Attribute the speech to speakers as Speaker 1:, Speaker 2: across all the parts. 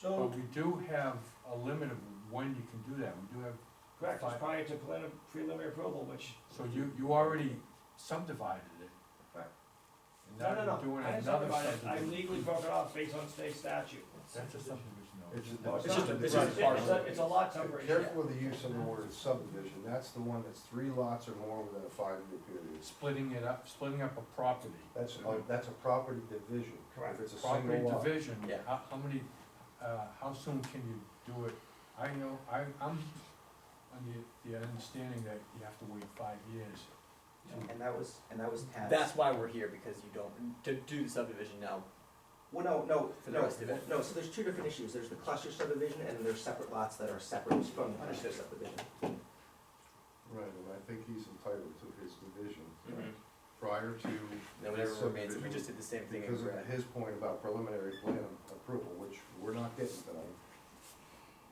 Speaker 1: So,
Speaker 2: But we do have a limit of when you can do that, we do have,
Speaker 1: correct, it's prior to prelim- preliminary approval, which.
Speaker 2: so you, you already subdivided it.
Speaker 1: Right.
Speaker 2: And
Speaker 1: No,
Speaker 2: now
Speaker 1: no, no,
Speaker 2: you're doing
Speaker 1: I
Speaker 2: another
Speaker 1: didn't subdivide it, I
Speaker 2: subdivision.
Speaker 1: legally broke it off based on state statute.
Speaker 2: That's a subdivision though.
Speaker 3: It's-
Speaker 1: No, it's
Speaker 4: It's
Speaker 1: not,
Speaker 4: just a- it's
Speaker 1: it's, it's
Speaker 4: just a
Speaker 1: a, it's a lot separation.
Speaker 3: Careful with the use of the word subdivision, that's the one that's three lots or more within a five-year period.
Speaker 2: Splitting it up, splitting up a property.
Speaker 3: That's, a- that's a property division.
Speaker 1: Correct.
Speaker 3: If it's a
Speaker 2: Property
Speaker 3: single lot.
Speaker 2: division,
Speaker 4: Yeah.
Speaker 2: how, how many, uh, how soon can you do it? I know, I, I'm on the, the understanding that you have to wait five years.
Speaker 5: And that was, and that was passed.
Speaker 4: That's why we're here, because you don't, to do the subdivision now.
Speaker 5: Well, no, no,
Speaker 4: For the
Speaker 5: no,
Speaker 4: rest of it.
Speaker 5: no, so there's two different issues, there's the cluster subdivision, and then there's separate lots that are separate from the cluster
Speaker 4: Understood.
Speaker 5: subdivision.
Speaker 3: Right, and I think he's entitled to his division prior to
Speaker 4: Then whatever remains, we just did the same thing in
Speaker 3: Because of
Speaker 4: red.
Speaker 3: his point about preliminary plan approval, which we're not getting tonight.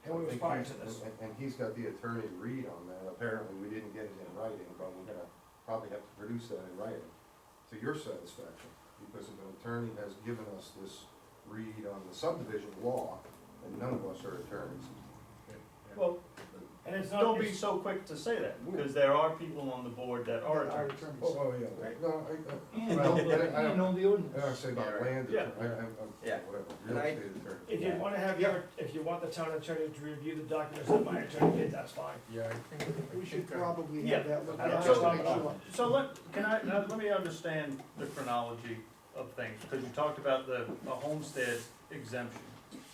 Speaker 1: And we
Speaker 3: I think
Speaker 1: respond to
Speaker 3: he's-
Speaker 1: this.
Speaker 3: and- And he's got the attorney read on that, apparently we didn't get it in writing, but we're gonna probably have to produce that in writing to your satisfaction, because if an attorney has given us this read on the subdivision law, and none of us are attorneys.
Speaker 6: Well,
Speaker 1: And it's not.
Speaker 6: don't be
Speaker 1: it's-
Speaker 6: so quick to say that, because there are people on the board that are
Speaker 1: Our
Speaker 6: attorneys.
Speaker 1: attorneys.
Speaker 3: Oh, oh, yeah,
Speaker 4: Right.
Speaker 3: no, I, I,
Speaker 1: And
Speaker 3: well,
Speaker 1: know
Speaker 3: I,
Speaker 1: the-
Speaker 3: I
Speaker 1: and
Speaker 3: don't,
Speaker 1: know the ordinance.
Speaker 3: I don't say about
Speaker 4: Yeah, right.
Speaker 3: land, I,
Speaker 6: Yeah.
Speaker 3: I, I'm,
Speaker 4: Yeah.
Speaker 3: whatever, real
Speaker 4: And I-
Speaker 3: estate attorney.
Speaker 1: If you wanna have your, if you want the town attorney to review the documents that my attorney did, that's fine.
Speaker 2: Yeah, I think. I
Speaker 7: We should
Speaker 2: think, uh,
Speaker 7: probably
Speaker 6: Yeah,
Speaker 7: have that looked
Speaker 1: I don't
Speaker 7: at.
Speaker 1: know.
Speaker 7: just to make sure.
Speaker 6: So let, can I, now let me understand the chronology of things, because you talked about the, a homestead exemption.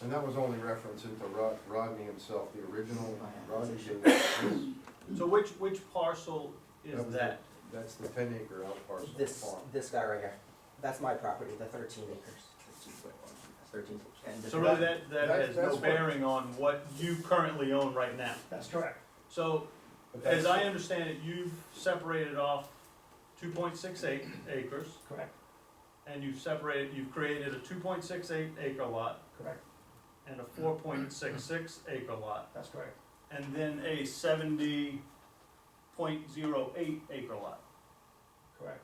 Speaker 3: And that was only reference into Rod, Rodney himself, the original Rodney. King.
Speaker 6: So which, which parcel
Speaker 3: That
Speaker 6: is
Speaker 3: was
Speaker 6: that?
Speaker 3: That's the ten acre out parcel
Speaker 5: This,
Speaker 3: farm.
Speaker 5: this guy right here, that's my property, the thirteen acres. Thirteen, and this.
Speaker 6: So really that, that
Speaker 3: That-
Speaker 6: has no
Speaker 3: that's what-
Speaker 6: bearing on what you currently own right now.
Speaker 1: That's correct.
Speaker 6: So
Speaker 3: But that's-
Speaker 6: as I understand it, you've separated off two point six eight acres,
Speaker 1: Correct,
Speaker 6: and you've separated, you've created a two point six eight acre lot,
Speaker 1: correct,
Speaker 6: and a four point six six acre lot,
Speaker 1: that's correct.
Speaker 6: and then a seventy point zero eight acre lot.
Speaker 1: Correct.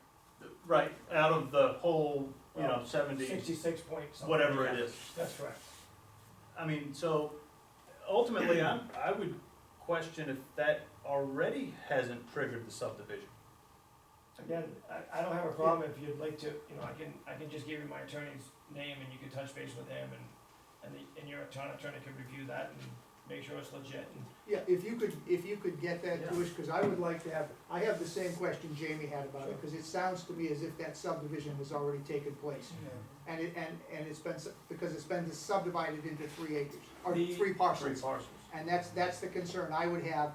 Speaker 6: Right, out of the whole, you know, seventy,
Speaker 1: Sixty-six point something.
Speaker 6: whatever it is.
Speaker 1: That's correct.
Speaker 6: I mean, so ultimately, I'm, I would question if that already hasn't triggered the subdivision.
Speaker 1: Again, I, I don't have a problem if you'd like to, you know, I can, I can just give you my attorney's name and you can touch base with him and, and the, and your town attorney can review that and make sure it's legit and
Speaker 7: Yeah, if you could, if you could get that to us, because I would like to have, I have the same question Jamie had about it, because it sounds to me as if that subdivision has already taken place. And it, and, and it's been, s- because it's been subdivided into three acres, or
Speaker 1: The-
Speaker 7: three
Speaker 6: Three
Speaker 7: parcels.
Speaker 6: parcels.
Speaker 7: And that's, that's the concern I would have.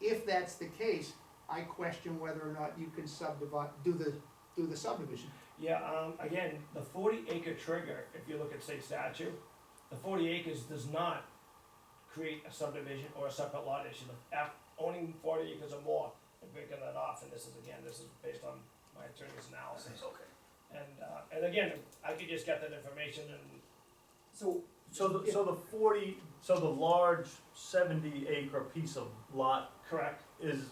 Speaker 7: If that's the case, I question whether or not you can subdivide, do the, do the subdivision.
Speaker 1: Yeah, um, again, the forty acre trigger, if you look at state statute, the forty acres does not create a subdivision or a separate lot issue. The app- Owning forty acres or more and breaking that off, and this is again, this is based on my attorney's analysis. Okay. And, uh, and again, I could just get that information and,
Speaker 5: So,
Speaker 6: So the, so the forty, so the large seventy acre piece of lot
Speaker 1: correct,
Speaker 6: is,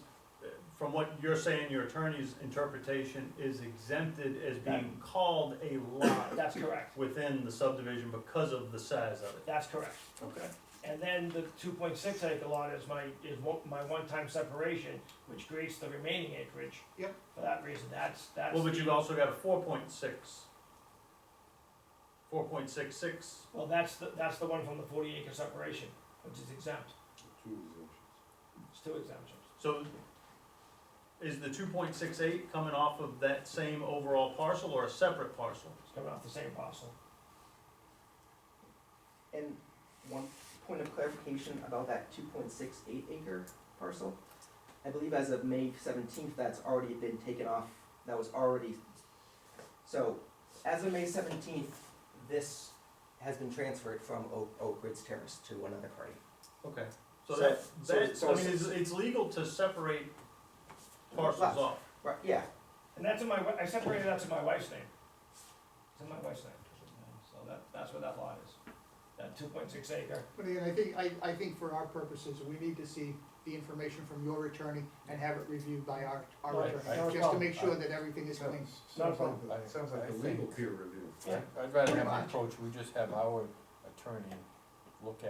Speaker 6: uh, from what you're saying, your attorney's interpretation is exempted as being called a lot
Speaker 1: that's correct,
Speaker 6: within the subdivision because of the size of it.
Speaker 1: that's correct.
Speaker 6: Okay.
Speaker 1: And then the two point six acre lot is my, is one, my one-time separation, which creates the remaining acreage.
Speaker 7: Yep.
Speaker 1: For that reason, that's, that's.
Speaker 6: Well, but
Speaker 1: the-
Speaker 6: you've also got a four point six. Four point six six,
Speaker 1: Well, that's the, that's the one from the forty acre separation, which is exempt,
Speaker 3: Two exemptions.
Speaker 1: it's two exemptions.
Speaker 6: so is the two point six eight coming off of that same overall parcel or a separate parcel?
Speaker 1: It's coming off the same parcel.
Speaker 5: and one point of clarification about that two point six eight acre parcel. I believe as of May seventeenth, that's already been taken off, that was already, so, as of May seventeenth, this has been transferred from Oak, Oak Ridge Terrace to another party.
Speaker 6: Okay. So
Speaker 5: So-
Speaker 6: that,
Speaker 5: so-
Speaker 6: that,
Speaker 5: so
Speaker 6: I mean, it's, it's legal to separate parcels
Speaker 5: Lots.
Speaker 6: off.
Speaker 5: Right, yeah,
Speaker 1: And that's in my, wi- I separated that to my wife's name. It's in my wife's name, so that, that's where that lot is, that two point six acre.
Speaker 7: But again, I think, I, I think for our purposes, we need to see the information from your attorney and have it reviewed by our, our
Speaker 1: Right,
Speaker 2: no
Speaker 7: attorney, just to
Speaker 2: problem.
Speaker 7: make sure that everything is clean.
Speaker 3: Sounds-
Speaker 1: Not a
Speaker 3: Sounds like,
Speaker 2: problem.
Speaker 3: the- sounds like
Speaker 2: I
Speaker 3: a legal
Speaker 2: think-
Speaker 3: peer review.
Speaker 1: Yeah.
Speaker 2: I'd rather
Speaker 7: Pretty
Speaker 2: have an
Speaker 7: much.
Speaker 2: approach, we just have our attorney look at.